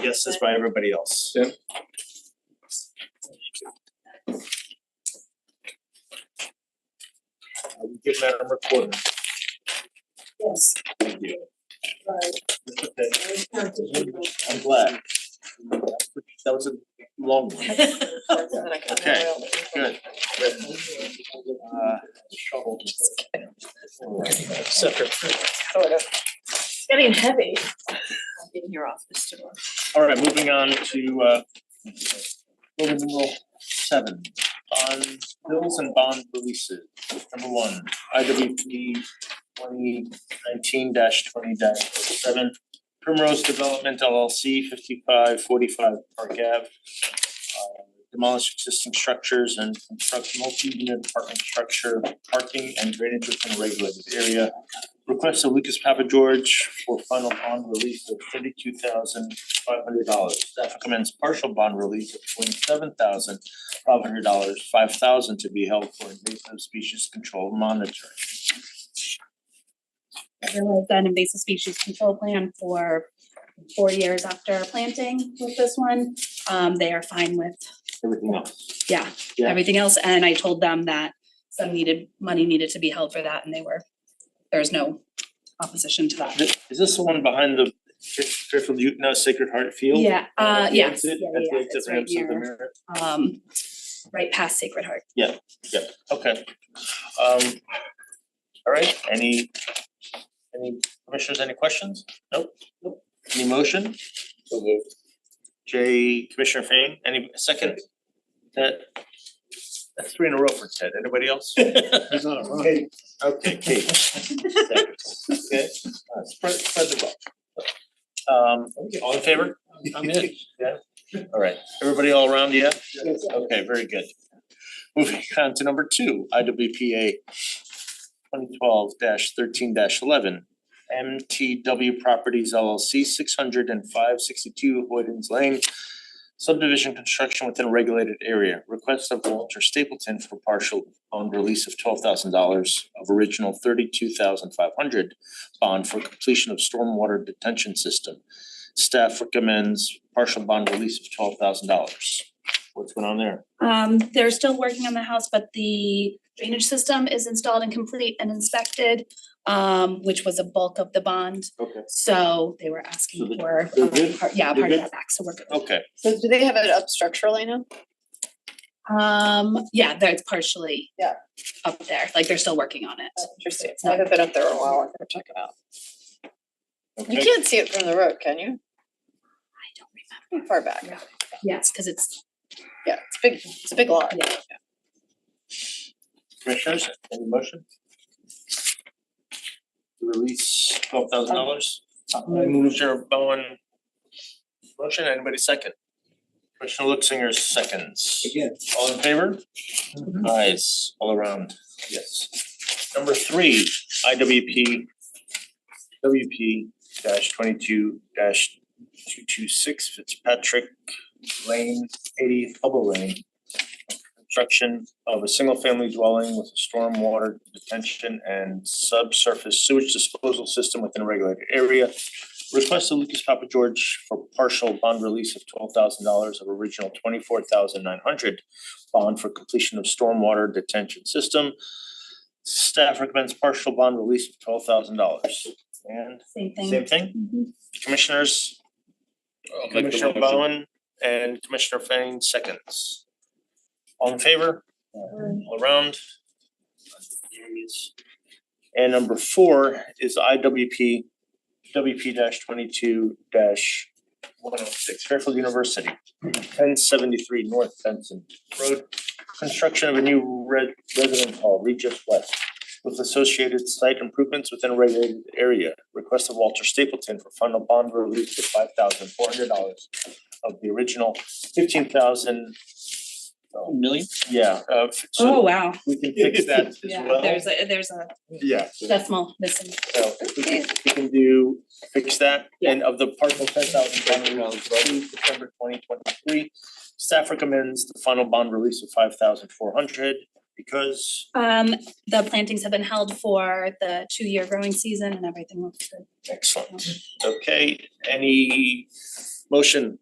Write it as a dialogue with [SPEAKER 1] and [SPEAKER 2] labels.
[SPEAKER 1] Yes, as by everybody else.
[SPEAKER 2] Yep.
[SPEAKER 1] Thank you. Give Madam Recorder,
[SPEAKER 3] Yes,
[SPEAKER 1] thank you.
[SPEAKER 3] right, I
[SPEAKER 1] I'm glad. That was a long one. Okay, good. Uh, shovel. Uh, Separate.
[SPEAKER 3] Sort of. Getting heavy. I've been here off this door.
[SPEAKER 1] All right, moving on to uh bill numeral seven, bond bills and bond releases. Number one, I W P twenty nineteen twenty seven. Primrose Development LLC fifty-five forty-five Park Ave. Uh, Demolish existing structures and construct multi-unit apartment structure, parking and drainage within a regulated area. Request of Lucas Papa George for final bond release of thirty-two thousand five hundred dollars. Staff recommends partial bond release of twenty-seven thousand five hundred dollars, five thousand to be held for invasive species control monitoring.
[SPEAKER 4] there was an invasive species control plan for four years after planting with this one. Um, they are fine with
[SPEAKER 1] Everything else. Yeah.
[SPEAKER 4] everything else, and I told them that some needed, money needed to be held for that, and they were, there was no opposition to that.
[SPEAKER 1] Th- Is this the one behind the Fair- Fairfield Utah Sacred Heart Field?
[SPEAKER 4] Yeah, uh,
[SPEAKER 1] At the
[SPEAKER 4] yes, yeah,
[SPEAKER 1] exit-
[SPEAKER 4] yeah,
[SPEAKER 1] at the
[SPEAKER 4] yeah,
[SPEAKER 1] exit
[SPEAKER 4] it's right
[SPEAKER 1] ramps of the
[SPEAKER 4] here,
[SPEAKER 1] Merritt?
[SPEAKER 4] um, right past Sacred Heart.
[SPEAKER 1] Okay. Um, all right, any, any commissioners, any questions? Nope. Nope. Any motion? Jay, Commissioner Fain, any second? That, that's three in a row for Ted, anybody else? Okay, okay, Kate. Seconds. Okay, uh, spread, spread the wealth. Um, all in favor? I'm in. Yeah, all right, everybody all around, yeah? Okay, very good. Moving on to number two, I W P A twenty twelve thirteen eleven. M T W Properties LLC, six hundred and five sixty-two Hoydens Lane. Subdivision construction within a regulated area. Request of Walter Stapleton for partial bond release of twelve thousand dollars of original thirty-two thousand five hundred bond for completion of stormwater detention system. Staff recommends partial bond release of twelve thousand dollars. What's going on there?
[SPEAKER 4] Um, they're still working on the house, but the drainage system is installed and complete and inspected, um, which was a bulk of the bond.
[SPEAKER 1] Okay.
[SPEAKER 4] So they were asking
[SPEAKER 1] So they-
[SPEAKER 4] for,
[SPEAKER 1] they're
[SPEAKER 4] um,
[SPEAKER 1] good?
[SPEAKER 4] part- yeah,
[SPEAKER 1] They're
[SPEAKER 4] part of
[SPEAKER 1] good?
[SPEAKER 4] that back, so we're good.
[SPEAKER 1] Okay,
[SPEAKER 3] So do they have it up structurally now?
[SPEAKER 4] Um, yeah, there it's partially
[SPEAKER 3] Yeah.
[SPEAKER 4] up there, like they're still working on it.
[SPEAKER 3] Interesting, I haven't been up there in a while, I'm gonna check it out. You
[SPEAKER 1] okay,
[SPEAKER 3] can't see it from the road, can you?
[SPEAKER 4] I don't
[SPEAKER 3] Pretty
[SPEAKER 4] remember.
[SPEAKER 3] far back,
[SPEAKER 4] Yes, cuz it's,
[SPEAKER 3] yeah, it's big, it's a big lot.
[SPEAKER 4] Yeah.
[SPEAKER 1] commissioners, any motion? Release twelve thousand dollars. Commissioner Bowen. Motion, anybody second? Commissioner Luxinger seconds.
[SPEAKER 2] Again.
[SPEAKER 1] All in favor? Eyes all around, yes. Number three, I W P W P dash twenty-two dash two-two-six Fitzpatrick Lane, eighty Hubble Lane. Construction of a single-family dwelling with a stormwater detention and subsurface sewage disposal system within a regulated area. Request of Lucas Papa George for partial bond release of twelve thousand dollars of original twenty-four thousand nine hundred bond for completion of stormwater detention system. Staff recommends partial bond release of twelve thousand dollars. And
[SPEAKER 4] same thing.
[SPEAKER 1] same thing?
[SPEAKER 4] Mhm.
[SPEAKER 1] Commissioners, Commissioner Bowen and Commissioner Fain seconds. All in favor? All around? Carries. And number four is IWP, WP twenty-two one oh six, Fairfield University, ten seventy-three North Benson Road. Construction of a new red resident hall, Regis West with associated site improvements within a regulated area. Request of Walter Stapleton for final bond release of five thousand four hundred dollars of the original fifteen thousand. oh,
[SPEAKER 2] Million?
[SPEAKER 1] Yeah, uh, f-
[SPEAKER 4] Oh,
[SPEAKER 1] so
[SPEAKER 4] wow.
[SPEAKER 1] we can fix that as
[SPEAKER 4] Yeah,
[SPEAKER 1] well.
[SPEAKER 4] there's a, there's a
[SPEAKER 1] Yeah, so
[SPEAKER 4] decimal missing.
[SPEAKER 1] if we can, if we can do, fix that, and of the partial ten thousand bond release due September twenty twenty-three. Staff recommends the final bond release of five thousand four hundred because
[SPEAKER 4] Um, the plantings have been held for the two-year growing season and everything looks good.
[SPEAKER 1] Excellent. Okay, any Motion